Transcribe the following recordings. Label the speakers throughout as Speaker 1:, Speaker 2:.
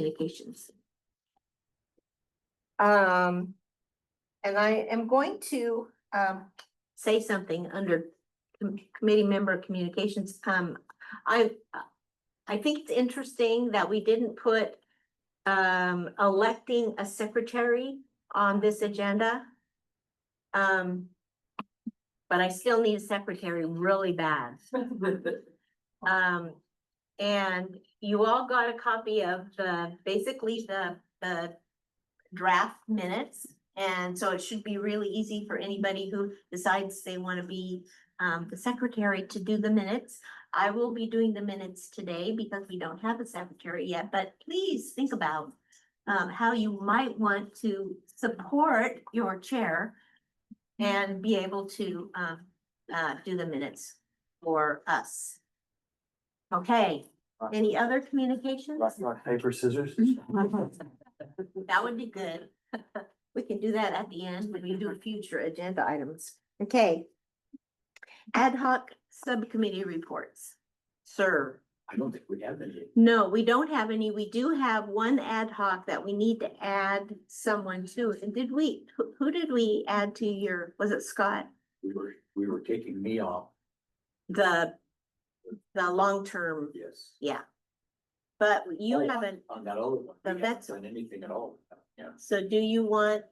Speaker 1: communications.
Speaker 2: Um, and I am going to, um,
Speaker 1: Say something under com- committee member communications. Um, I, I think it's interesting that we didn't put um, electing a secretary on this agenda. Um, but I still need a secretary really bad. Um, and you all got a copy of the, basically the, the draft minutes. And so it should be really easy for anybody who decides they want to be, um, the secretary to do the minutes. I will be doing the minutes today because we don't have a secretary yet, but please think about um, how you might want to support your chair and be able to, um, uh, do the minutes for us. Okay, any other Mm-hmm. communications?
Speaker 3: Rock, rock, paper, scissors?
Speaker 1: That would be good. We can do that at the end when we do future agenda items. Okay. Ad hoc subcommittee reports. Sir.
Speaker 3: I don't think we have any.
Speaker 1: No, we don't have any. We do have one ad hoc that we need to add someone to. And did we, who, who did we add to your, was it Scott?
Speaker 3: We were, we were taking me off,
Speaker 1: The, the long-term,
Speaker 3: yes.
Speaker 1: but you
Speaker 3: Oh,
Speaker 1: haven't,
Speaker 3: On that other one.
Speaker 1: The
Speaker 3: we haven't
Speaker 1: vets-
Speaker 3: Done anything at all. Yeah.
Speaker 1: so do you want,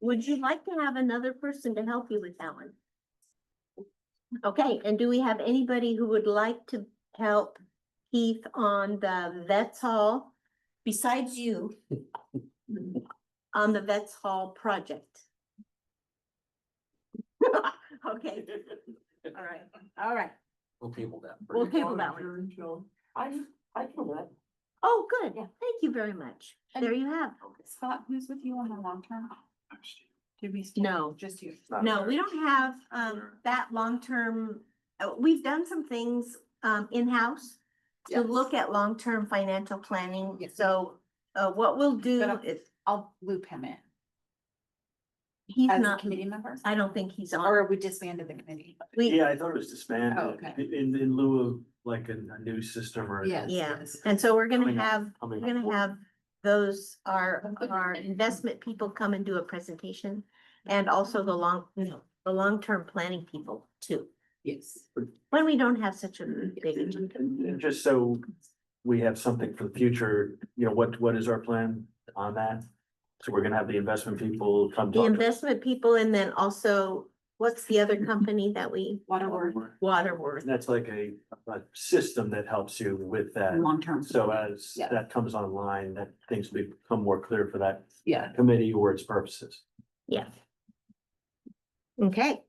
Speaker 1: would you like to have another person to help you with that one? Okay, and do we have anybody who would like to help Keith on the Vets Hall besides you? On the Vets Hall project? Okay, all right, all right.
Speaker 3: We'll table that. for
Speaker 1: We'll
Speaker 3: now.
Speaker 1: table that one.
Speaker 4: I, I feel that.
Speaker 1: Oh, good. Thank you very much.
Speaker 4: And-
Speaker 1: There you have.
Speaker 4: Scott, who's with you on the long term? Did we?
Speaker 1: No.
Speaker 4: Just you.
Speaker 1: No, we don't have um
Speaker 3: Sure.
Speaker 1: that long-term, uh, we've done some things um in-house to
Speaker 4: Yes.
Speaker 1: look at long-term financial planning.
Speaker 4: Yes.
Speaker 1: So uh what we'll do
Speaker 4: But, uh,
Speaker 1: is,
Speaker 4: I'll loop him in
Speaker 1: he's
Speaker 4: as a
Speaker 1: not,
Speaker 4: committee member,
Speaker 1: I don't think he's on.
Speaker 4: or we disbanded the committee.
Speaker 1: We,
Speaker 5: Yeah, I thought it was
Speaker 4: Oh,
Speaker 5: disbanded
Speaker 4: okay.
Speaker 5: in, in lieu of like a, a new system or.
Speaker 4: Yes.
Speaker 1: yeah,
Speaker 4: yes.
Speaker 1: and so we're
Speaker 5: Coming
Speaker 1: gonna
Speaker 5: up.
Speaker 1: have,
Speaker 5: I mean,
Speaker 1: we're gonna have those, our our investment people come and do a presentation. And also the long, the long-term planning people too,
Speaker 4: Yes.
Speaker 1: when we don't have such a big agenda.
Speaker 5: And and just so we have something for the future, you know, what, what is our plan on that? So we're gonna have the investment people come
Speaker 1: The
Speaker 5: talk. to-
Speaker 1: investment people and then also, what's the other company that we,
Speaker 4: Waterworth,
Speaker 1: Waterworth?
Speaker 5: And that's like a, a system that helps you with that.
Speaker 4: long term.
Speaker 5: So as
Speaker 4: Yeah.
Speaker 5: that comes online, that things will become more clear for that
Speaker 4: Yeah.
Speaker 5: committee or its purposes.
Speaker 1: Yeah. Okay,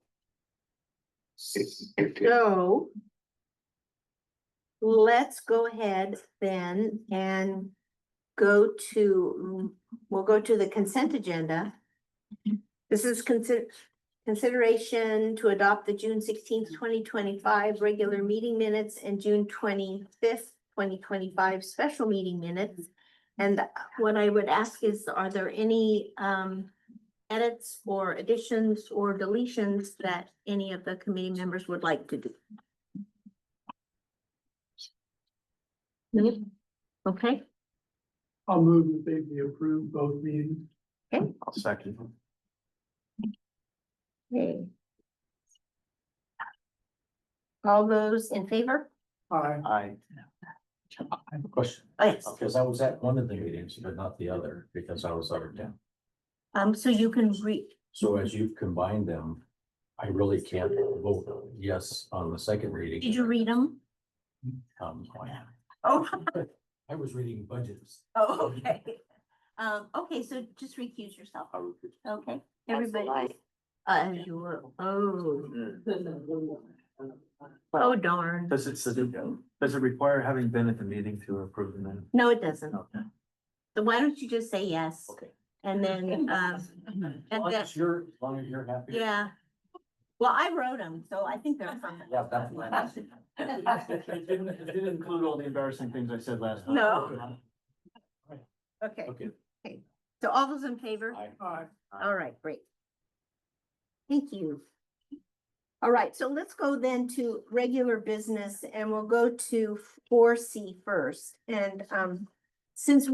Speaker 3: If-
Speaker 1: so let's go ahead then and go to, we'll go to the consent agenda. This is consider, consideration to adopt the June sixteenth, twenty twenty-five regular meeting minutes and June twenty-fifth, twenty twenty-five special meeting minutes. And what I would ask is, are there any um edits or additions or deletions that any of the committee members would like to do? Nope. Okay,
Speaker 6: I'll move that they be approved both meetings.
Speaker 5: I'll second.
Speaker 1: okay. All those in favor?
Speaker 6: Aye.
Speaker 5: I,
Speaker 3: I have a question,
Speaker 1: Oh, Yes,
Speaker 3: because I was at one of the meetings, but not the other, because I was out of town.
Speaker 1: um, so you can read,
Speaker 3: So as you've combined them, I really can't vote yes on the second reading.
Speaker 1: did you read them?
Speaker 3: Um, I-
Speaker 1: Oh,
Speaker 3: I was reading budgets.
Speaker 1: oh, okay. Um, okay, so just recuse yourself,
Speaker 3: I was-
Speaker 1: okay? Everybody. Uh, you were, oh, oh darn.
Speaker 5: does it, does it, does it require having been at the meeting to approve the minutes?
Speaker 1: No, it doesn't.
Speaker 5: Okay.
Speaker 1: So why don't you just say yes?
Speaker 3: Okay.
Speaker 1: And then, um,
Speaker 3: As long
Speaker 1: that-
Speaker 3: as you're, as long as you're happy.
Speaker 1: yeah. Well, I wrote them, so I think they're fine.
Speaker 3: Yeah, that's what I said.
Speaker 5: It didn't, it didn't include all the embarrassing things I said last time.
Speaker 1: No. Okay,
Speaker 5: Okay.
Speaker 1: so all those in favor?
Speaker 3: I-
Speaker 6: Aye.
Speaker 1: All right, great. Thank you. All right, so let's go then to regular business and we'll go to four C first. And um, since